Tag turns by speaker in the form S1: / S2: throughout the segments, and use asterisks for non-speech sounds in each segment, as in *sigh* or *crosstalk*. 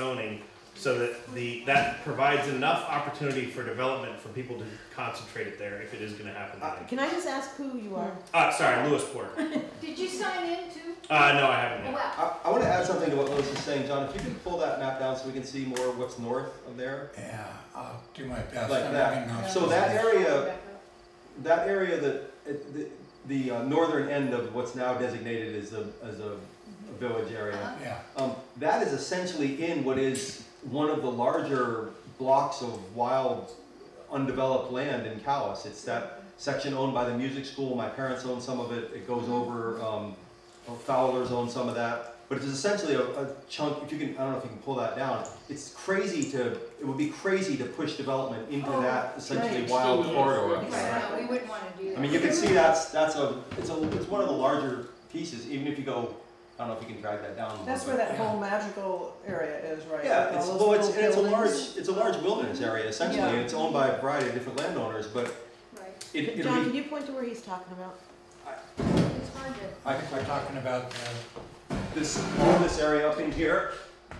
S1: zoning so that the, that provides enough opportunity for development for people to concentrate it there if it is gonna happen.
S2: Uh,
S1: then.
S2: Can I just ask who you are?
S1: Uh, sorry, Lewisport.
S3: Did you sign in too?
S1: Uh, no, I haven't
S3: Oh,
S1: yet.
S3: wow.
S4: I, I want to add something to what Lois is saying, John. If you can pull that map down so we can see more of what's north of there,
S5: Yeah, I'll do my best.
S4: like
S5: I'm looking
S4: that.
S5: up
S4: So
S5: to
S4: that
S5: the-
S4: area, that area that it- the, the uh, northern end of what's now designated as a as a village area,
S5: Yeah,
S4: um, that is essentially in what is one of the larger blocks of wild, undeveloped land in Calais. It's that section owned by the music school. My parents own some of it. It goes over. Um, Well, Fowler's own some of that, but it's essentially a, a chunk, if you can, I don't know if you can pull that down, it's crazy to, it would be crazy to push development into
S3: Oh,
S4: that essentially
S2: right.
S4: wild
S6: Still is.
S4: corridor.
S3: Right, no, we wouldn't wanna do
S4: I
S3: that.
S4: mean, you can see that's, that's a, it's a, it's one of the larger pieces, even if you go, I don't know if you can drag that down. a little
S2: That's
S4: bit.
S2: where that whole magical area is, right?
S4: Yeah,
S2: With
S4: it's,
S2: all those
S4: well, it's,
S2: little
S4: and it's a large,
S2: buildings.
S4: it's a large wilderness area essentially,
S2: Yeah.
S4: and it's owned by a variety of different landowners, but
S3: Right,
S4: it, it'll
S2: John,
S4: be,
S2: can you point to where he's talking about?
S3: it's hard to,
S4: I can, I
S5: we're
S4: can
S5: talking about the,
S4: this, all this area up in here,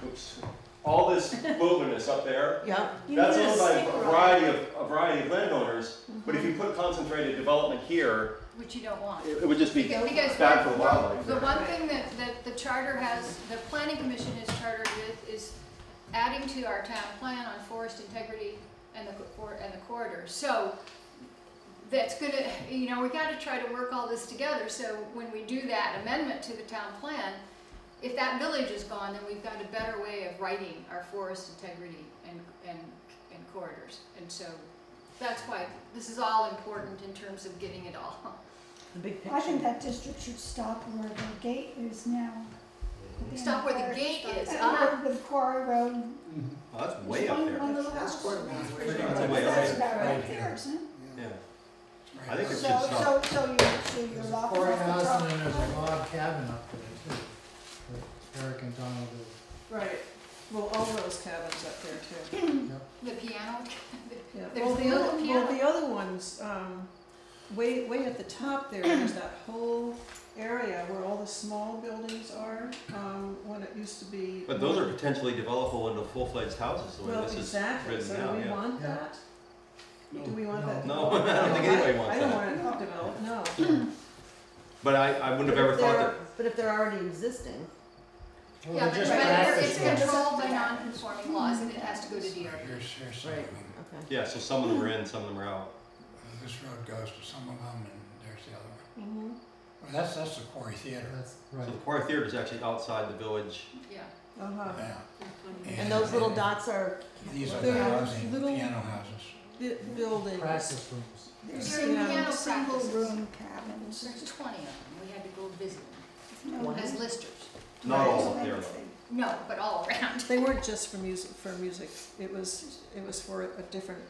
S4: oops, all
S2: *laughs*
S4: this wilderness up there.
S2: Yeah.
S4: That's owned by a variety of, a variety of landowners, but if you
S2: Mm-hmm.
S4: put concentrated development here,
S3: which you don't want.
S4: it it would just be
S3: Because- because
S4: bad for
S3: one-
S4: wildlife.
S3: The one thing that, that the charter has, the planning commission is chartered with is adding to our town plan on forest integrity and the, cor- and the corridor. So that's gonna, you know, we gotta try to work all this together, so when we do that amendment to the town plan, if that village is gone, then we've got a better way of writing our forest integrity and, and, and corridors. And so that's why this is all important in terms of getting it all. *laughs*
S2: The big
S7: I think
S2: picture.
S7: that district should stop where the gate is now.
S3: Stop where the gate is, ah.
S7: Uh, With Quarry Road.
S4: Oh, that's way
S7: There's
S4: up
S7: one-
S4: there.
S7: one
S4: That's
S7: little house.
S4: pretty much
S5: That's
S4: way up
S7: That's
S4: there.
S7: about
S5: right
S7: right
S5: here.
S7: there, isn't it?
S4: Yeah,
S5: right,
S4: I think
S7: So,
S4: it
S5: that's-
S4: should stop.
S7: so, so you, so you're
S6: There's a
S7: locking
S6: quarry
S7: off the
S6: house and then there's a
S7: driveway.
S6: log cabin up there too, that Eric and Donald did.
S2: Right. Well, all those cabins up there too.
S3: The piano,
S2: Yeah.
S3: There's
S2: Well,
S3: the other
S2: other- Well,
S3: piano.
S2: the other ones, um, way, way at the top there, there's that whole area where all the small buildings are, um, when it used to be.
S4: But those are potentially developable into full-fledged houses, the way
S2: Well,
S4: this is
S2: exactly,
S4: written
S2: so
S4: now,
S2: do we
S4: yeah.
S2: want
S6: Yeah.
S2: that? Do we want
S6: No.
S2: that?
S4: No, *laughs* I don't think anybody wants
S2: I don't
S4: that.
S2: want it to develop, no.
S4: But I, I wouldn't have ever
S2: But if
S4: thought
S2: they're-
S4: that,
S2: But if they're already existing.
S6: Well,
S3: yeah,
S6: they're
S3: but
S6: just
S3: but
S6: access
S3: it's
S6: roads.
S3: controlled by non-conforming laws and it has to go to DRB.
S5: Here's, here's
S2: Right.
S5: something.
S2: Okay.
S4: yeah, so some of them are in, some of them are out.
S5: This road goes to some of them and there's the other one.
S2: Mm-hmm.
S5: Well, that's, that's the quarry theater.
S6: That's
S4: So
S6: right.
S4: the Quarry Theater is actually outside the village.
S3: Yeah.
S2: Uh-huh.
S5: Yeah.
S2: And those little dots are
S5: These are the
S2: they're
S5: housing,
S2: little-
S5: piano houses.
S2: bu- buildings.
S6: Practice rooms.
S7: There's
S3: During
S2: Yeah.
S3: piano
S7: single
S3: practices,
S7: room cabins.
S3: there's twenty of them, we had to go visit them
S7: No
S2: One.
S3: as listers.
S4: Not all
S7: residential
S4: up there, though.
S7: thing.
S3: No, but all around.
S2: They weren't just for music, for music, it was, it was for a different,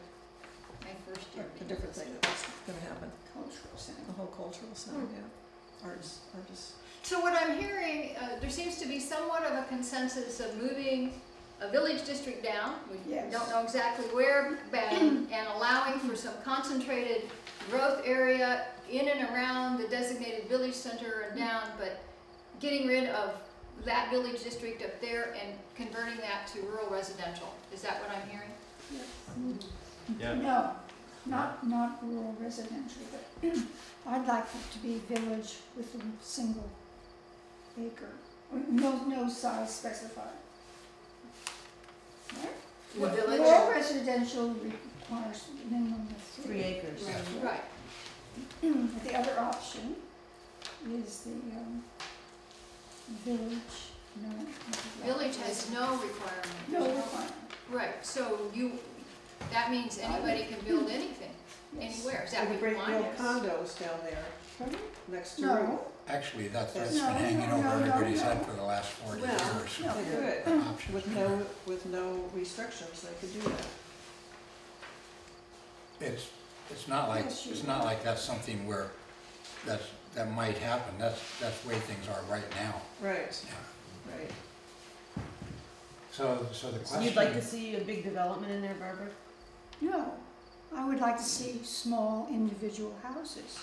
S3: My first year.
S2: a
S3: being
S2: different
S3: listed.
S2: thing that was gonna happen,
S7: Cultural center.
S2: the whole cultural side, yeah. Artists, artists.
S3: So what I'm hearing, uh, there seems to be somewhat of a consensus of moving a village district down. We
S7: Yes.
S3: don't know exactly where, but- um, and allowing for some concentrated growth area in and around the designated village center and down, but getting rid of that village district up there and converting that to rural residential. Is that what I'm hearing?
S4: Yeah,
S7: No, not, not rural residential, but *clears throat* I'd like it to be village with a single acre, no, no size specified. Right?
S3: The
S7: Rural residential requires a minimum of
S2: Three
S7: three.
S2: acres.
S5: Yeah.
S3: Right,
S7: But *clears throat* The other option is the, um, village, no.
S3: village has no requirement.
S7: No requirement,
S3: Right, so you, that means anybody can build anything,
S7: yes.
S3: anywhere, is
S2: They
S3: that what
S2: could bring
S3: you want?
S2: little condos down there
S7: Pardon?
S2: next to.
S7: No,
S5: Actually, that's,
S2: No,
S5: that's been hanging
S7: no,
S5: over
S7: no, no,
S5: everybody's
S7: no.
S5: head for the last forty
S2: Well,
S5: years.
S7: no.
S2: They could,
S5: The options
S2: with
S5: there.
S2: no, with no restrictions, they could do that.
S5: It's, it's not like,
S7: Yes, you-
S5: it's not like that's something where, that's, that might happen, that's, that's the way things are right now.
S2: Right,
S5: Yeah.
S2: right.
S5: So, so the question.
S2: You'd like to see a big development in there, Barbara?
S7: No, I would like to see small individual houses.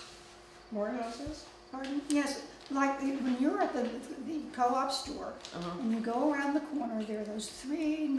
S2: More houses?
S7: Pardon? Yes, like the- when you're at the, the co-op store
S8: Uh-huh.
S7: and you go around the corner, there are those three